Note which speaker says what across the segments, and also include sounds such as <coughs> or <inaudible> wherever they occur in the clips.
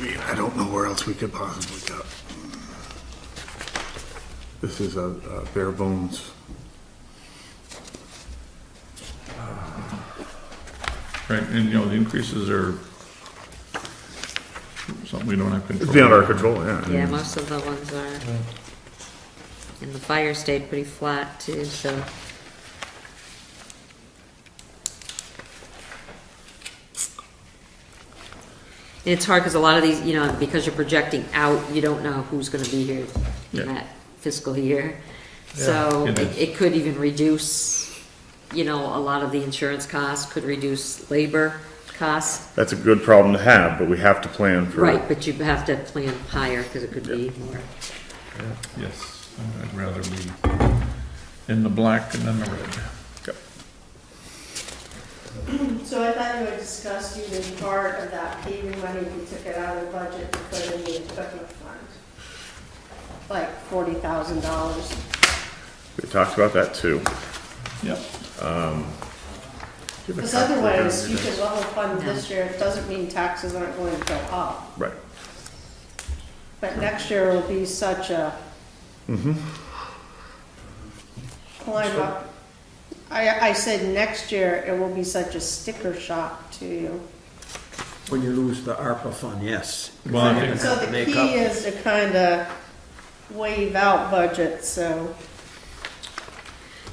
Speaker 1: mean, I don't know where else we could possibly go. This is a a bare bones.
Speaker 2: Right, and you know, the increases are something we don't have control.
Speaker 1: It's beyond our
Speaker 2: over.
Speaker 1: control, yeah.
Speaker 3: Yeah, most of the ones are. And the fire stayed pretty flat too, so. And it's hard because a lot of these, you know, because you're projecting out, you don't know who's gonna be here
Speaker 2: Yeah.
Speaker 3: in that fiscal year. So
Speaker 2: Yeah.
Speaker 3: it, it could even reduce, you know, a lot of the insurance costs, could reduce labor costs.
Speaker 4: That's a good problem to have, but we have to plan for.
Speaker 3: Right, but you have to plan higher because it could be more.
Speaker 2: Yes, I'd rather be in the black than in the red.
Speaker 5: So I thought you had discussed using part of that paving money, if you took it out of the budget to put in the equipment fund. Like forty thousand dollars.
Speaker 4: We talked about that too.
Speaker 2: Yep,
Speaker 5: Because otherwise, you could level fund this year, it doesn't mean taxes aren't going to go up.
Speaker 4: Right.
Speaker 5: But next year will be such a climb up. I, I said next year, it will be such a sticker shock to you.
Speaker 6: When you lose the ARPA fund, yes.
Speaker 2: Well, I think-
Speaker 5: So the
Speaker 6: Make
Speaker 5: key
Speaker 6: up.
Speaker 5: is to kind of wave out budget, so.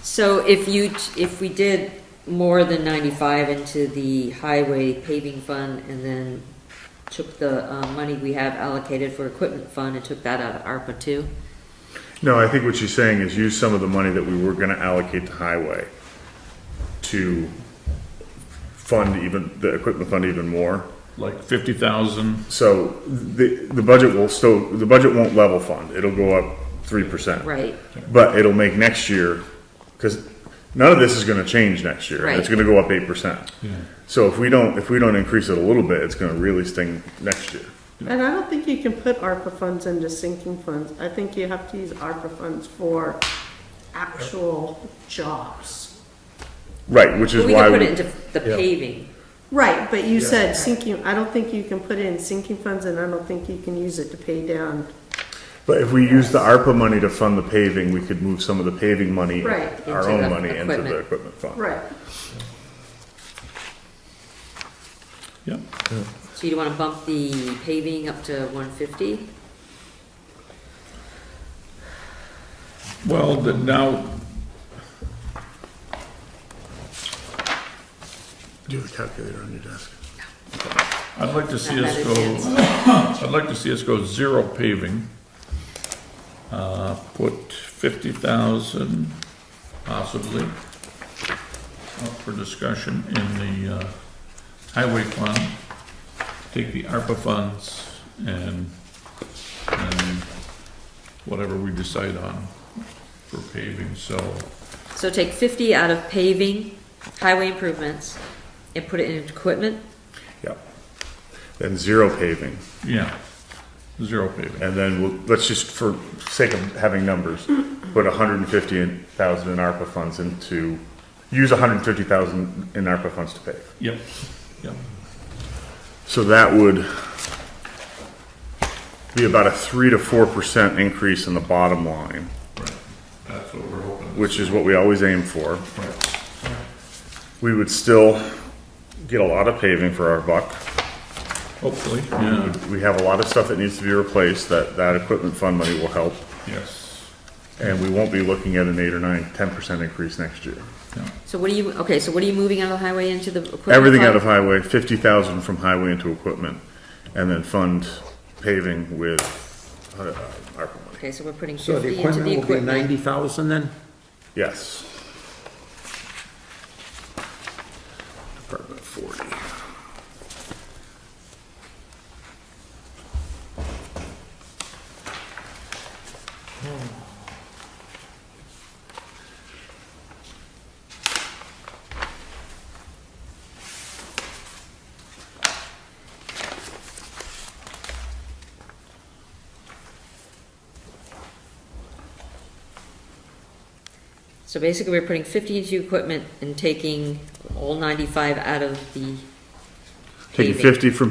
Speaker 3: So if you, if we did more than ninety-five into the highway paving fund and then took the, uh, money we have allocated for equipment fund and took that out of ARPA too?
Speaker 4: No, I think what she's saying is use some of the money that we were gonna allocate to highway to fund even, the equipment fund even more.
Speaker 2: like fifty thousand,
Speaker 4: So the, the budget will still, the budget won't level fund. It'll go up three percent.
Speaker 3: Right,
Speaker 4: But it'll make next year, because none of this is gonna change next year. It's
Speaker 3: Right.
Speaker 4: gonna go up eight percent.
Speaker 2: Yeah.
Speaker 4: So if we don't, if we don't increase it a little bit, it's gonna really sting next year.
Speaker 5: And I don't think you can put ARPA funds into sinking funds. I think you have to use ARPA funds for actual jobs.
Speaker 4: Right, which is
Speaker 3: but we
Speaker 4: why.
Speaker 3: could put
Speaker 4: we-
Speaker 3: it into the paving,
Speaker 5: Right, but you said sinking, I don't think you can put it in sinking funds and I don't think you can use it to pay down.
Speaker 4: But if we use the ARPA money to fund the paving, we could move some of the paving money,
Speaker 5: Right,
Speaker 4: our
Speaker 3: into the
Speaker 4: own money, into the
Speaker 3: equipment.
Speaker 4: equipment fund.
Speaker 5: Right.
Speaker 2: yep.
Speaker 3: so you wanna bump the paving up to one fifty?
Speaker 2: Well, the- now,
Speaker 1: Do you have a calculator on your desk?
Speaker 2: I'd like to see us
Speaker 3: That
Speaker 2: go,
Speaker 3: is it.
Speaker 2: <coughs> I'd like to see us go zero paving. Uh, put fifty thousand possibly up for discussion in the, uh, highway fund. Take the ARPA funds and, and whatever we decide on for paving, so,
Speaker 3: So take fifty out of paving, highway improvements, and put it in equipment,
Speaker 4: Yep. Then zero paving,
Speaker 2: yeah, zero paving.
Speaker 4: and then we'll, let's just, for sake of having numbers, put hundred and fifty thousand in ARPA funds into, use hundred and fifty thousand in ARPA funds to pave.
Speaker 2: Yep, yep,
Speaker 4: So that would be about a three to four percent increase in the bottom line,
Speaker 2: right, that's what we're hoping.
Speaker 4: which is what we always aim for.
Speaker 2: Right.
Speaker 4: We would still get a lot of paving for our buck.
Speaker 2: Hopefully, yeah,
Speaker 4: We have a lot of stuff that needs to be replaced, that, that equipment fund money will help.
Speaker 2: yes.
Speaker 4: And we won't be looking at an eight or nine, ten percent increase next year.
Speaker 2: Yeah.
Speaker 3: so what are you, okay, so what are you moving out of the highway into the equipment?
Speaker 4: Everything out
Speaker 3: fund?
Speaker 4: of highway, fifty thousand from highway into equipment, and then fund paving with uh, ARPA money.
Speaker 3: Okay, so we're putting
Speaker 6: So the
Speaker 3: fifty into the
Speaker 6: equipment will be
Speaker 3: equipment.
Speaker 6: ninety thousand then?
Speaker 4: Yes. Department forty.
Speaker 3: So basically, we're putting fifty into equipment and taking all ninety-five out of the
Speaker 4: Taking
Speaker 3: paving.
Speaker 4: fifty from